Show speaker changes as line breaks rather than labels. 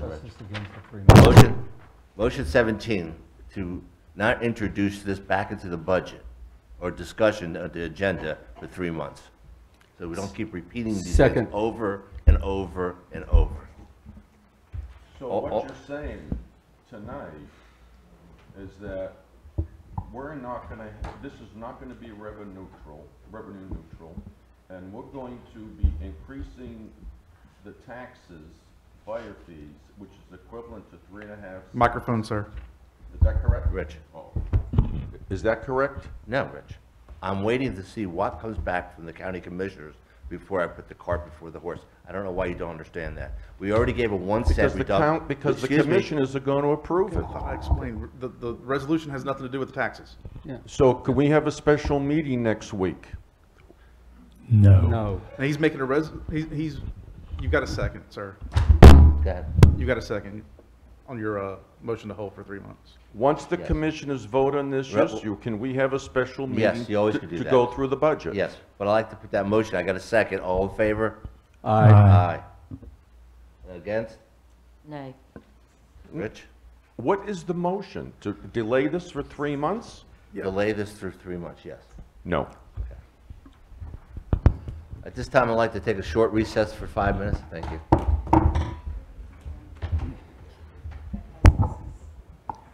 just against the three months.
Motion, motion 17 to not introduce this back into the budget or discussion of the agenda for three months. So we don't keep repeating these things
Second.
over and over and over.
So
Oh, oh.
what you're saying tonight is that we're not gonna, this is not gonna be revenue neutral, revenue neutral, and we're going to be increasing the taxes, fire fees, which is equivalent to three and a half.
Microphone, sir.
Is that correct?
Rich,
Oh. Is that correct?
no, Rich. I'm waiting to see what comes back from the county commissioners before I put the cart before the horse. I don't know why you don't understand that. We already gave a one cent
Because the
reduction.
count, because the
Excuse me.
commissioners are gonna approve it.
I explained, the, the resolution has nothing to do with the taxes.
So could we have a special meeting next week?
No.
And he's making a res, he's, he's, you've got a second, sir.
Go ahead.
You've got a second on your, uh, motion to hold for three months.
Once the
Yes.
commissioners vote on this
Right.
issue, can we have a special meeting?
Yes, you always
to-
could do
To
that.
go through the budget?
Yes, but I like to put that motion, I got a second, all in favor?
Aye.
Aye. Against?
Nay.
Rich?
What is the motion? To delay this for three months?
Delay this through three months, yes.
No.
At this time, I'd like to take a short recess for five minutes, thank you.